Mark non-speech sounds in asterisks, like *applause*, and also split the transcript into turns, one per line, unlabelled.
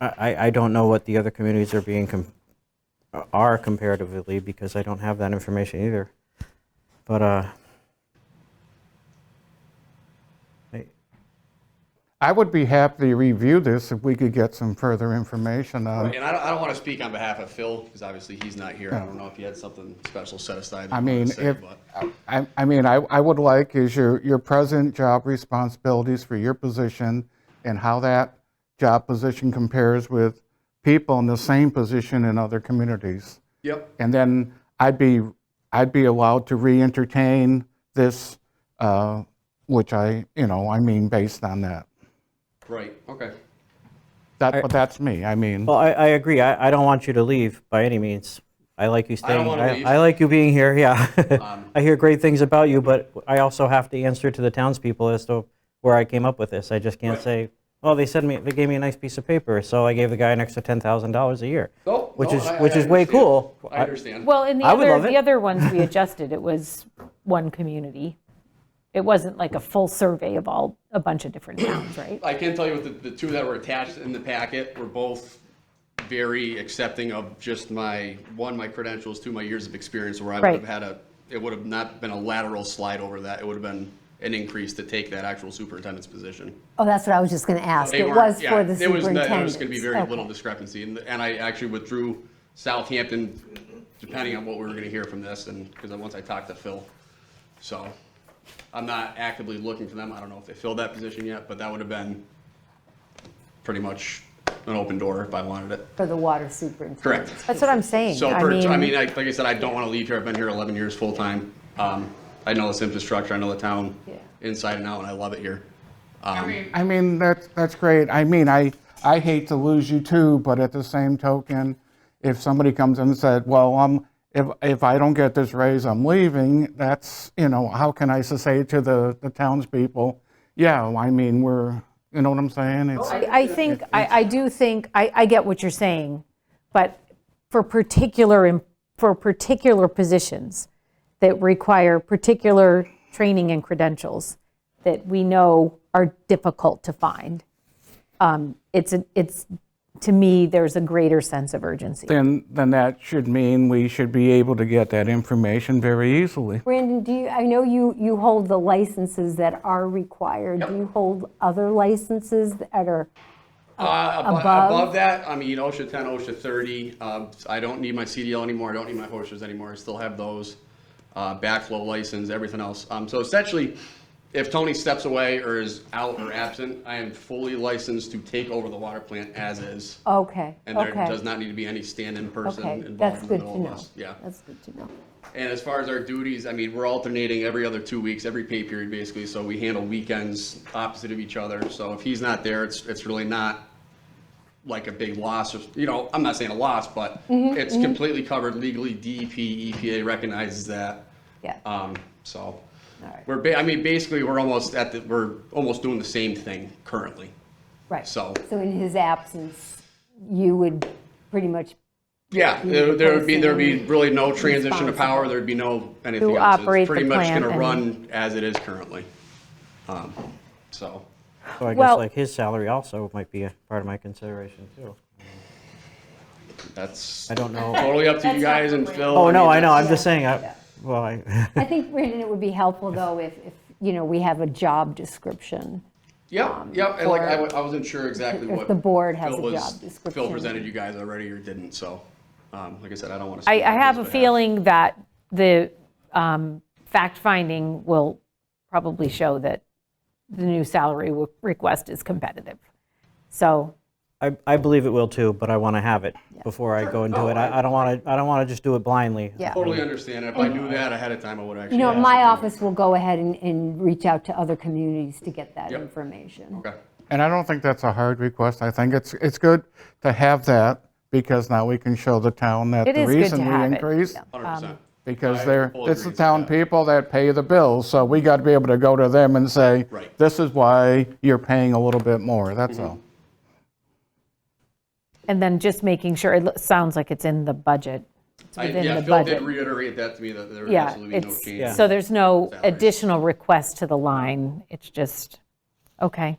I, I don't know what the other communities are being, com- are comparatively, because I don't have that information either. But, uh, I-
I would be happy to review this if we could get some further information on.
And I don't, I don't want to speak on behalf of Phil, because obviously he's not here. I don't know if he had something special set aside. that
I
he wanted
mean,
to say,
if,
but-
I, I mean, I, I would like is your, your present job responsibilities for your position and how that job position compares with people in the same position in other communities.
Yep.
And then I'd be, I'd be allowed to re-entertain this, uh, which I, you know, I mean, based on that.
Right, okay.
That, but that's me, I mean.
well, I, I agree. I, I don't want you to leave by any means. I like you staying.
wanna leave. Um,
I like you being here, yeah. *laughs* I hear great things about you, but I also have to answer to the townspeople as to where I came up with this. I just can't say, oh, they sent me, they gave me a nice piece of paper, so I gave the guy an extra $10,000 a year.
No,
Which
no,
is,
I-
which
I
is way
understand.
cool.
I understand.
Well, in the
I would
other,
love it.
the other ones
*laughs*
we adjusted, it was one community. It wasn't like a full survey of all, a bunch of different towns, right?
I can tell you with the, the two that were attached in the packet were both very accepting of just my, one, my credentials, two, my years of experience where I would
Right.
have had a, it would have not been a lateral slide over that. It would have been an increase to take that actual superintendent's position.
Oh, that's what I was just going to ask.
They
It
weren't-
was
yeah,
for the
there was no-
superintendent.
There was going to be very little discrepancy, and, and I actually withdrew Southampton, depending on what we were going to hear from this, and, because once I talked to Phil. So, I'm not actively looking for them, I don't know if they filled that position yet, but that would have been pretty much an open door if I wanted it.
For the water superintendent.
Correct.
That's what I'm saying.
So, per- I mean, I- like I said, I don't want to leave here, I've been here 11 years full-time. Um, I know this infrastructure, I know the town
Yeah.
inside and out, and I love it here. Um,
I mean, that's, that's great. I mean, I, I hate to lose you too, but at the same token, if somebody comes in and said, well, um, if, if I don't get this raise, I'm leaving, that's, you know, how can I say to the, the townspeople, yeah, well, I mean, we're, you know what I'm saying?
Oh,
It's,
I I think, I, I do think, I, I get what you're saying, but for particular, em- for particular positions that require particular training and credentials that we know are difficult to find, um, it's, a- it's, to me, there's a greater sense of urgency.
then, then that should mean we should be able to get that information very easily.
Brandon, do you, I know you, you hold the licenses that are required. Do you hold other licenses that are,
Uh, abo-
Above?
Above that, I mean, OSHA 10, OSHA 30, um, I don't need my CDL anymore, I don't need my horses anymore, I still have those. Uh, Backflow license, everything else. Um, So essentially, if Tony steps away or is out or absent, I am fully licensed to take over the water plant as is.
okay,
And there
Oh, okay.
does not need to be any stand-in person
Okay,
involved
that's
in the
good to
middle of
know.
us. Yeah.
That's good to know.
And as far as our duties, I mean, we're alternating every other two weeks, every pay period basically, so we handle weekends opposite of each other. So if he's not there, it's, it's really not like a big loss or, you know, I'm not saying a loss, but it's completely covered legally. E DEP, EPA recognizes that.
Yeah.
Um, so we're, ba- I mean, basically, we're almost at the, we're almost doing the same thing currently.
Right.
So-
in his absence, you would pretty much,
Yeah, there there would be, there'd be really no transition of power, there'd be no anything
To
else. It's
operate the
Pretty
plant
much gonna
and-
run as it is currently. Um, So,
So I guess
Well-
like his salary also might be a part of my consideration too.
that's
I don't know.
totally up to you guys and Phil.
Oh, no,
mean,
I know, I'm
that's-
just saying, I, well, I, *laughs*
I think, Brandon, it would be helpful though if, if, you know, we have a job description.
Yep, yep, and like, I
for-
wa- I wasn't sure exactly
if
what.
the board has
Phil
a
was-
job
Phil
description.
presented you guys already or didn't, so, um, like I said, I don't want to.
I, I have a feeling that the um, fact finding will probably show that the new salary w- request is competitive. So
I, I believe it will too, but I want to have it before I go and do it. I, I don't want to, I don't want to just do it blindly.
Yeah.
Totally understand, if I knew that ahead of time, I would actually.
You know,
ask
my
something.
office will go ahead and, and reach out to other communities to get that
Yep.
information.
Okay.
And I don't think that's a hard request. I think it's, it's good to have that because now we can show the town that
It
the
is good
reason
to
we
have it,
increased
yeah.
Hundred percent.
Because
I
they're,
full
it's the
agrees with
town
that.
people that pay the bills, so we got to be able to go to them and say,
Right. Mm-hmm.
this is why you're paying a little bit more, that's all.
And then just making sure, it lo- sounds like it's in the budget. It's
I-
within
yeah,
the
Phil did
budget.
reiterate that to me, that there would
Yeah,
absolutely be no change.
it's, so there's no
salaries.
additional request to the line. It's just, okay.